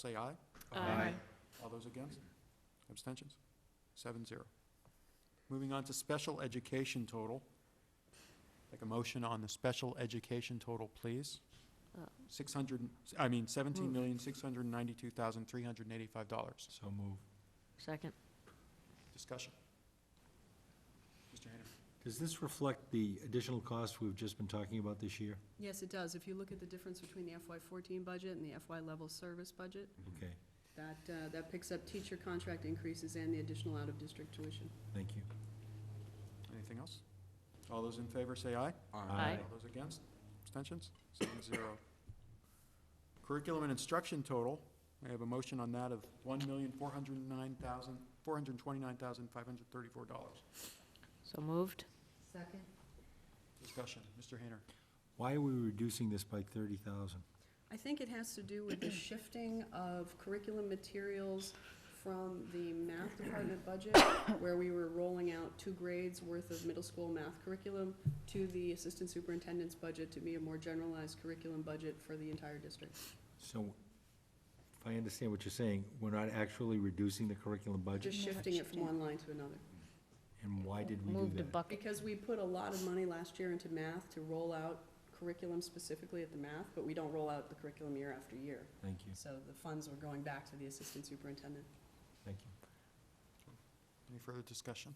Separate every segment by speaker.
Speaker 1: say aye.
Speaker 2: Aye.
Speaker 1: All those against? Abstentions? Seven zero. Moving on to special education total. Like a motion on the special education total, please.
Speaker 2: Uh.
Speaker 1: Six hundred, I mean seventeen
Speaker 2: Move.
Speaker 1: million, six hundred and ninety-two thousand, three hundred and eighty-five dollars.
Speaker 3: So move.
Speaker 2: Second.
Speaker 1: Discussion. Mr. Hayner.
Speaker 3: Does this reflect the additional cost we've just been talking about this year?
Speaker 4: Yes, it does. If you look at the difference between the FY fourteen budget and the FY level service budget,
Speaker 3: Okay,
Speaker 4: that, uh, that picks up teacher contract increases and the additional out-of-district tuition.
Speaker 3: thank you.
Speaker 1: Anything else? All those in favor say aye.
Speaker 2: Aye.
Speaker 1: All those against? Abstentions? Seven zero. Curriculum and instruction total, I have a motion on that of one million, four hundred and nine thousand, four hundred and twenty-nine thousand, five hundred and thirty-four dollars.
Speaker 2: So moved.
Speaker 4: Second.
Speaker 1: Discussion, Mr. Hayner.
Speaker 3: Why are we reducing this by thirty thousand?
Speaker 4: I think it has to do with the shifting of curriculum materials from the math department budget, where we were rolling out two grades worth of middle school math curriculum, to the assistant superintendent's budget to be a more generalized curriculum budget for the entire district.
Speaker 3: So, if I understand what you're saying, we're not actually reducing the curriculum budget?
Speaker 4: Just shifting it from one line to another.
Speaker 3: And why did we
Speaker 2: Moved a
Speaker 3: do that?
Speaker 2: bucket.
Speaker 4: Because we put a lot of money last year into math to roll out curriculum specifically at the math, but we don't roll out the curriculum year after year.
Speaker 3: Thank you,
Speaker 4: So the funds were going back to the assistant superintendent.
Speaker 3: thank you.
Speaker 1: Any further discussion?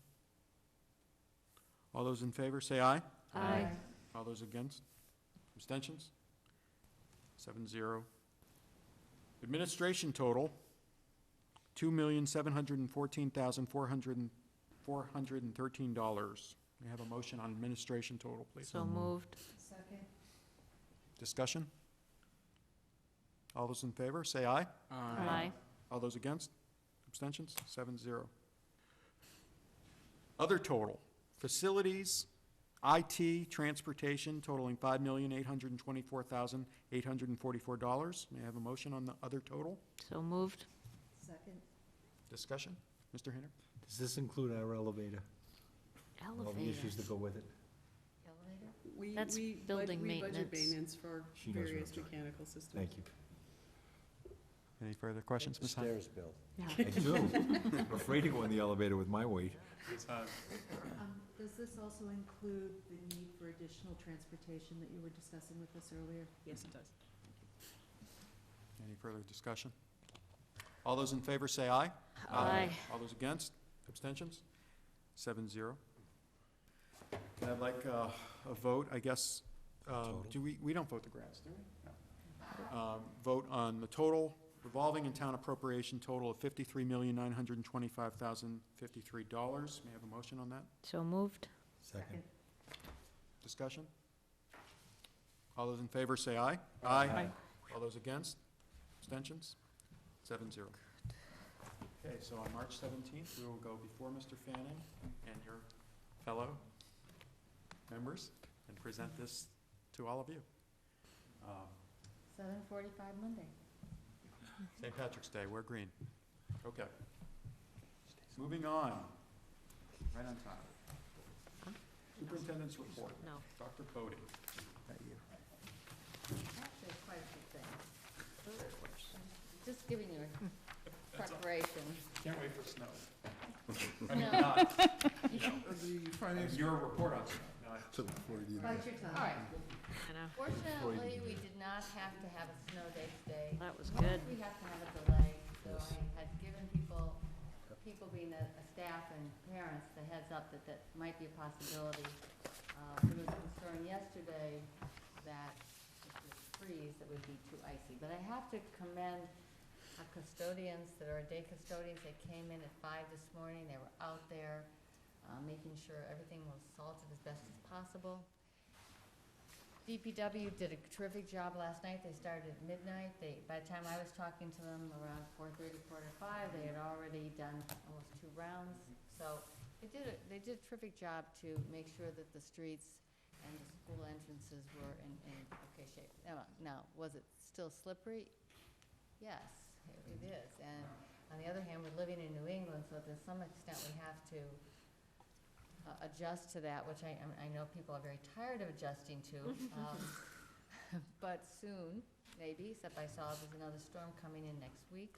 Speaker 1: All those in favor, say aye.
Speaker 2: Aye.
Speaker 1: All those against? Abstentions? Seven zero. Administration total, two million, seven hundred and fourteen thousand, four hundred and, four hundred and thirteen dollars. May I have a motion on administration total, please?
Speaker 2: So moved.
Speaker 4: Second.
Speaker 1: Discussion? All those in favor, say aye.
Speaker 2: Aye.
Speaker 1: All those against? Abstentions? Seven zero. Other total, facilities, IT, transportation totaling five million, eight hundred and twenty-four thousand, eight hundred and forty-four dollars. May I have a motion on the other total?
Speaker 2: So moved.
Speaker 4: Second.
Speaker 1: Discussion? Mr. Hayner?
Speaker 3: Does this include our elevator? All the
Speaker 2: Elevator.
Speaker 3: issues that go with it?
Speaker 4: We,
Speaker 2: That's
Speaker 4: we, bud-
Speaker 2: building
Speaker 4: we budget
Speaker 2: maintenance.
Speaker 4: maintenance for
Speaker 3: She knows what I'm
Speaker 4: various
Speaker 3: talking
Speaker 4: mechanical systems.
Speaker 3: Thank you.
Speaker 1: Any further questions, Ms. Hunt?
Speaker 3: Bill.
Speaker 2: No.
Speaker 3: I do. I'm afraid to go in the elevator with my weight.
Speaker 5: Um, Does this also include the need for additional transportation that you were discussing with us earlier?
Speaker 4: Yes, it does.
Speaker 1: Any further discussion? All those in favor say aye.
Speaker 2: Aye.
Speaker 1: All those against? Abstentions? Seven zero. And I'd like uh, a vote, I guess, uh,
Speaker 3: Total.
Speaker 1: do we, we don't vote the grants, do we? No. Um, Vote on the total revolving and town appropriation total of fifty-three million, nine hundred and twenty-five thousand, fifty-three dollars. May I have a motion on that?
Speaker 2: So moved.
Speaker 3: Second.
Speaker 1: Discussion? All those in favor say aye.
Speaker 3: Aye.
Speaker 1: All those against? Abstentions? Seven zero. Okay, so on March seventeenth, we will go before Mr. Fanning and your fellow members and present this to all of you. Um,
Speaker 5: Seven forty-five Monday.
Speaker 1: St. Patrick's Day, we're green. Okay. Moving on, right on time. Superintendent's report,
Speaker 2: No.
Speaker 1: Dr. Bodie.
Speaker 5: Actually, quite a few things. Just giving you a preparation.
Speaker 1: Can't wait for snow. I mean,
Speaker 5: No.
Speaker 1: not,
Speaker 6: The
Speaker 1: I mean,
Speaker 6: finance.
Speaker 1: your report on snow, not
Speaker 6: Took before you did.
Speaker 5: Bite your tongue.
Speaker 7: All right,
Speaker 2: I know.
Speaker 7: fortunately, we did not have to have a snow day today.
Speaker 2: That was
Speaker 7: Normally,
Speaker 2: good.
Speaker 7: We have to have a delay, so
Speaker 3: Yes.
Speaker 7: I had given people, people being the the staff and parents, the heads up that that might be a possibility. Uh, There was concern yesterday that if it freeze, it would be too icy. But I have to commend our custodians that are day custodians. They came in at five this morning. They were out there uh, making sure everything was salted as best as possible. DPW did a terrific job last night. They started at midnight. They, by the time I was talking to them around four thirty, quarter to five, they had already done almost two rounds. So they did, a they did a terrific job to make sure that the streets and the school entrances were in, in okay shape. Now, now, was it still slippery? Yes, it is. And on the other hand, we're living in New England, so to some extent, we have to uh, adjust to that, which I, I know people are very tired of adjusting to. um, But soon, maybe, except I saw there's another storm coming in next week.